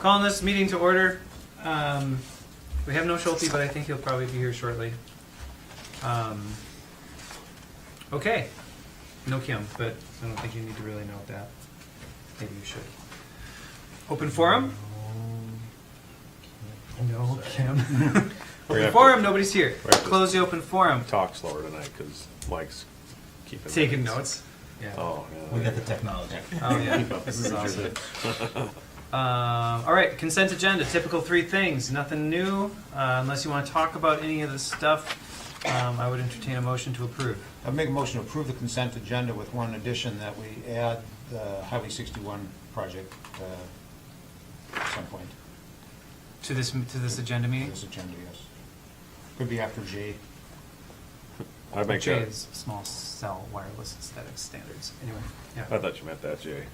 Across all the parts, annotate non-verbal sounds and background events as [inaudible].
Calling this meeting to order. Um, We have no Schulte, but I think he'll probably be here shortly. Um, Okay, no Kim, but I don't think you need to really note that. Maybe you should. Open forum? No Kim. We're Open gonna forum, nobody's here. We're gonna- Close the open forum. talk slower tonight because Mike's keeping Taking notes. Yeah. Oh, yeah. We got the technology. Oh, yeah, this is awesome. Um, all right, consent agenda, typical three things, nothing new, uh, unless you want to talk about any of the stuff, um, I would entertain a motion to approve. I'd make a motion to approve the consent agenda with one addition that we add the Highway 61 project uh, at some point To this, to this agenda to meeting? this agenda, yes. Could be after J. I'd make J that. is small cell wireless aesthetic standards, anyway, I yeah. thought you meant that, Jay.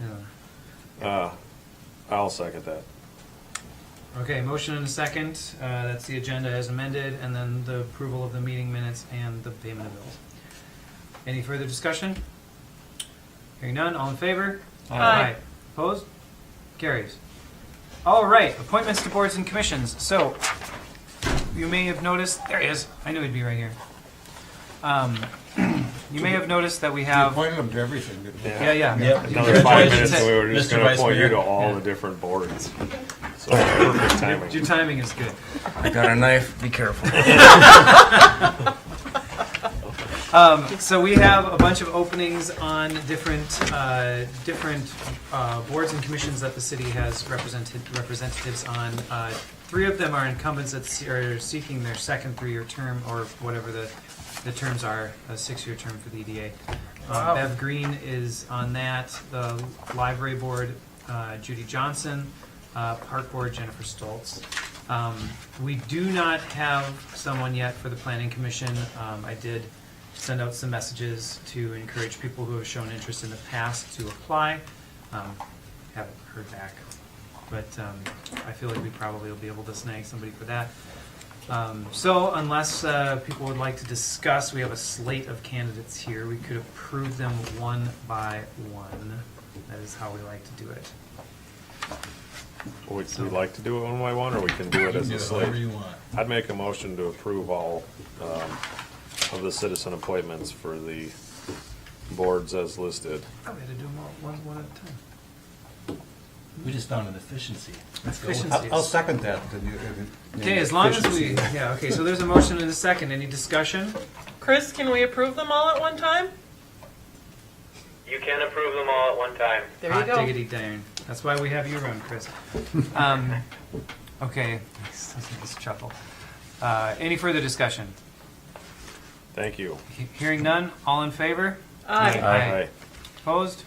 Yeah. Uh, I'll second that. Okay, motion and a second, uh, that's the agenda as amended, and then the approval of the meeting minutes and the payment of bills. Any further discussion? Hearing none, all in favor? Aye. Opposed? Carries. All right, appointments to boards and commissions. So, you may have noticed, there he is, I knew he'd be right here. Um, [clears throat] You may have noticed that we We have, appointed them to everything, didn't we? yeah, Yeah. yeah. Yep. Another five Congratulations, minutes, and we were just Mr. going to Vice appoint you Mayor. to all Yeah. the [laughs] different boards. So perfect Your timing. timing is good. I got a knife. Be careful. Um, so we have a bunch of openings on different, uh, different, uh, boards and commissions that the city has represented, representatives on. Uh, Three of them are incumbents that se- are seeking their second three-year term, or whatever the, the terms are, a six-year term for the E EDA. Um, Bev Green is on that, the library board, uh, Judy Johnson, uh, park board, Jennifer Stoltz. Um, we do not have someone yet for the planning commission. Um, I did send out some messages to encourage people who have shown interest in the past to apply. Um, haven't heard back, but um, I feel like we probably will be able to snag somebody for that. Um, so unless uh, people would like to discuss, we have a slate of candidates here. We could approve them one by one. That is how we like to do it. Would you like to do it one by one, or we can do it as a Whatever slate? you want. I'd make a motion to approve all um, of the citizen appointments for the boards as listed. Probably Oh, had to do them all one, one at a time. We just found an efficiency. Let's go. Efficiency. I'll I'll second that. uh, then you- if it- Okay, as long as we, yeah, okay, so there's a motion and a second. Any discussion? Chris, can we approve them all at one time? You can approve them all at one time. There you Hot go. diggity darn. That's why we have you run, Chris. Um, okay, this is a chuckle. Uh, any further discussion? Thank you. He- Hearing none, all in favor? Aye. Aye. Opposed?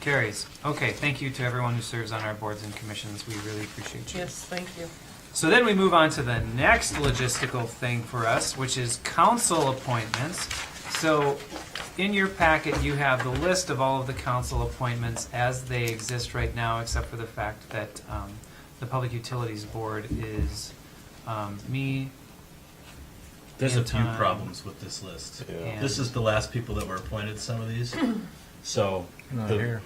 Carries. Okay, thank you to everyone who serves on our boards and commissions. We really appreciate you. Yes, thank you. So then we move on to the next logistical thing for us, which is council appointments. So in your packet, you have the list of all of the council appointments as they exist right now, except for the fact that um, the Public Utilities Board is um, me. There's a few Anton. problems with this list. Yeah. This is the last people that were appointed, some [clears throat] of these. So, the,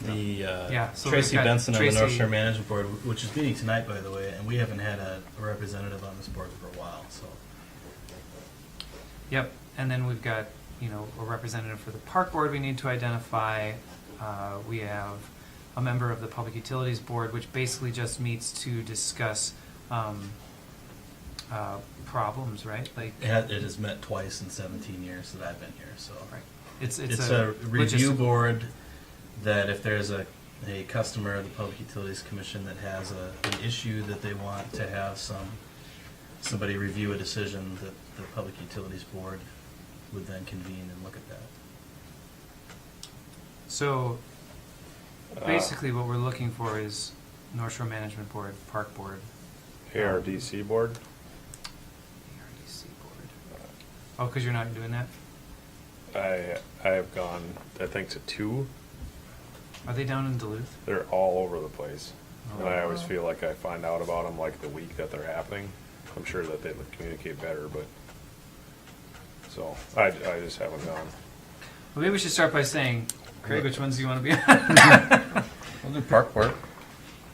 the, Yeah, uh, so Tracy we've got Benson on the North Tracy- Shore Management Board, which is meeting tonight, by the way, and we haven't had a representative on this board for a while, so. Yep, and then we've got, you know, a representative for the park board we need to identify. Uh, We have a member of the Public Utilities Board, which basically just meets to discuss um, uh, problems, right? Like, It had- it has met twice in seventeen years that I've been here, so. right. it's, It's a review logistic- board that if there's a, a customer of the Public Utilities Commission that has a, an issue that they want to have some, somebody review a decision that the Public Utilities Board would then convene and look at that. So Uh, basically what we're looking for is North Shore Management Board, Park Board, E ARDC board? ARDC Board. Oh, because you're not doing that? I, I have gone, I think, to two. Are they down in Duluth? They're all over the place. And I always Oh. feel like I find out about them like the week that they're happening. I'm sure that they would communicate better, but, so, I, I just haven't gone. Well, maybe we should start by saying, Craig, which ones do you want to be on? We'll do park work.